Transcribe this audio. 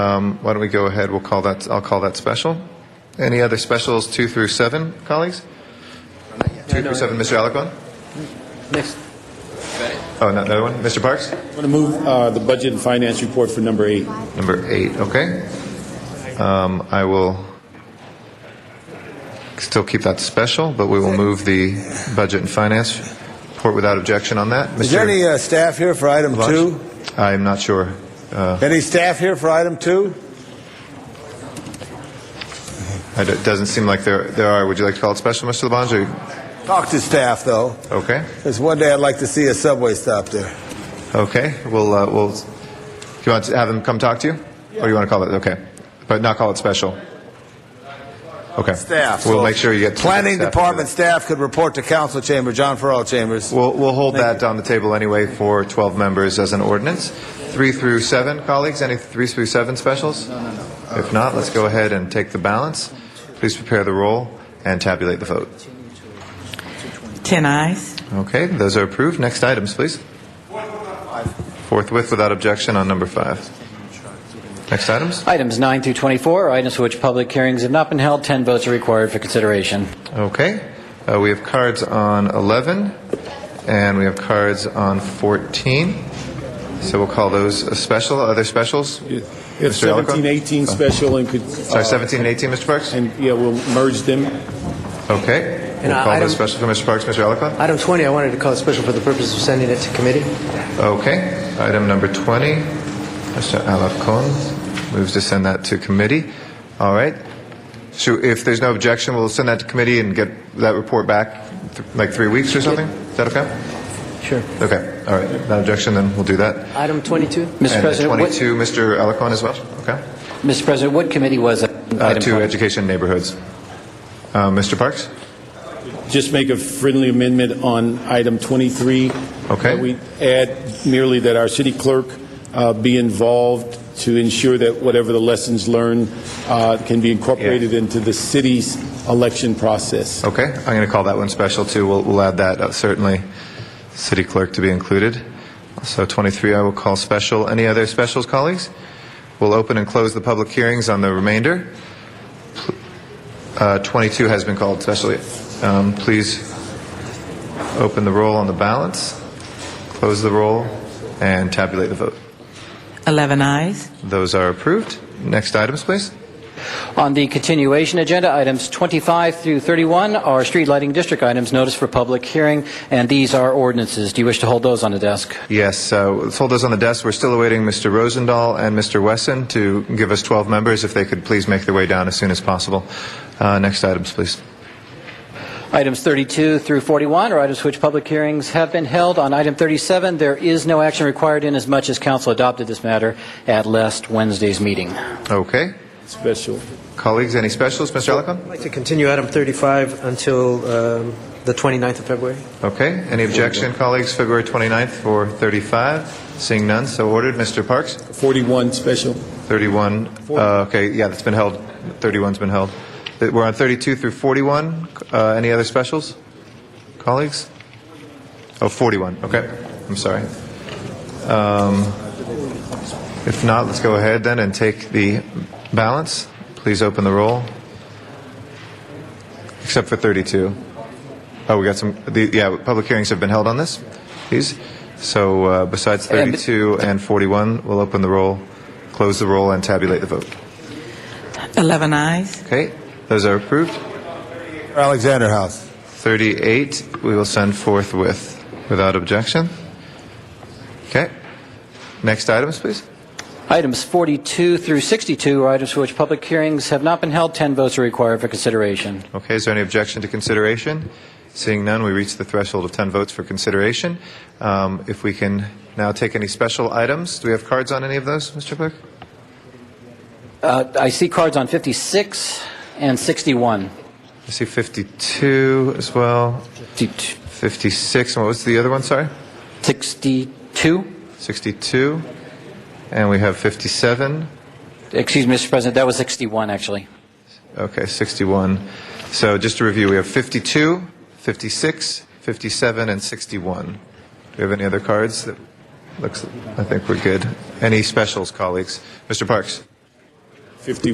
Um, Why don't we go ahead, we'll call that, I'll call that special. Any other specials, two through seven, colleagues? Two through seven, Mr. Alakon? Next. Oh, not another one? Mr. Parks? I'm going to move uh, the budget and finance report for number eight. Number eight, okay. Um, I will still keep that special, but we will move the budget and finance report without objection on that. Is there any uh, staff here for item two? I'm not sure. Uh, Any staff here for item two? I don't- It doesn't seem like there there are. Would you like to call it special, Mr. Labange? or- Talk to staff, though. Okay, Because one day I'd like to see a subway stop there. okay. We'll, uh, we'll, do you want to have them come talk to you? Or do you want to call it, okay, but not call it special? Okay. Staff. We'll So make sure you get. Planning staff to do department that. staff could report to council chamber, John Farrell Chambers. We'll, we'll hold that on the table anyway for 12 members as an ordinance. Three through seven, colleagues, any three through seven specials? No, no, no. If not, let's go ahead and take the balance. Please prepare the roll and tabulate the vote. 10 eyes. Okay, those are approved. Next items, please. Forthwith without objection on number five. Next items? Items 9 through 24 are items for which public hearings have not been held. 10 votes are required for consideration. Okay, uh, we have cards on 11, and we have cards on 14. So we'll call those a special. Other specials? If Mr. Alacon? 17, 18 special and could. Oh. Sorry, uh, 17 and 18, Mr. Parks? And, yeah, we'll merge them. Okay. We'll I- call I those don't- special for Mr. Parks, Mr. Alacon. Item 20, I wanted to call it special for the purpose of sending it to committee. Okay, item number 20, Mr. Alacon moves to send that to committee. All right. So if there's no objection, we'll send that to committee and get that report back, th- like three weeks or something? Is that okay? Sure. Okay, all right. No objection, then we'll do that. Item 22? Mr. President, And what- 22, Mr. Alacon as well? Okay. Mr. President, what committee was that? Uh, item To 20? education neighborhoods. Uh, Mr. Parks? Just make a friendly amendment on item 23. Okay. That we add merely that our city clerk uh, be involved to ensure that whatever the lessons learned uh, can be incorporated into the city's election process. Okay, I'm going to call that one special too. We'll, we'll add that, uh, certainly, city clerk to be included. So 23 I will call special. Any other specials, colleagues? We'll open and close the public hearings on the remainder. Uh, 22 has been called special. Um, Please open the roll on the balance, close the roll, and tabulate the vote. 11 eyes. Those are approved. Next items, please. On the continuation agenda, items 25 through 31 are street lighting district items, notice for public hearing, and these are ordinances. Do you wish to hold those on the desk? Yes, uh, let's hold those on the desk. We're still awaiting Mr. Rosendahl and Mr. Wesson to give us 12 members, if they could please make their way down as soon as possible. Uh, Next items, please. Items 32 through 41 are items for which public hearings have been held. On item 37, there is no action required inasmuch as council adopted this matter at last Wednesday's meeting. Okay. Special. Colleagues, any specials? Mr. I'd Alacon? like to continue item 35 until um, the 29th of February. Okay. Any objection, colleagues? February 29th for 35. Seeing none, so ordered. Mr. Parks? 41 special. 31, uh, okay, yeah, that's been held. 31's been held. That- We're on 32 through 41. Uh, Any other specials? Colleagues? Oh, 41, okay. I'm sorry. Um, If not, let's go ahead then and take the balance. Please open the roll. Except for 32. Oh, we got some, the- yeah, public hearings have been held on this, these. So uh, besides And- 32 and 41, we'll open the roll, close the roll, and tabulate the vote. 11 eyes. Okay, those are approved. Alexander House. 38, we will send forthwith, without objection. Okay. Next items, please. Items 42 through 62 are items for which public hearings have not been held. 10 votes are required for consideration. Okay, is there any objection to consideration? Seeing none, we reach the threshold of 10 votes for consideration. Um, If we can now take any special items, do we have cards on any of those, Mr. Clerk? Uh, I see cards on 56 and 61. I see 52 as well, 56, and what was the other one, sorry? 62? 62, and we have 57. Excuse me, Mr. President, that was 61, actually. Okay, 61. So just to review, we have 52, 56, 57, and 61. Do we have any other cards? that Looks, I think we're good. Any specials, colleagues? Mr. Parks? 51.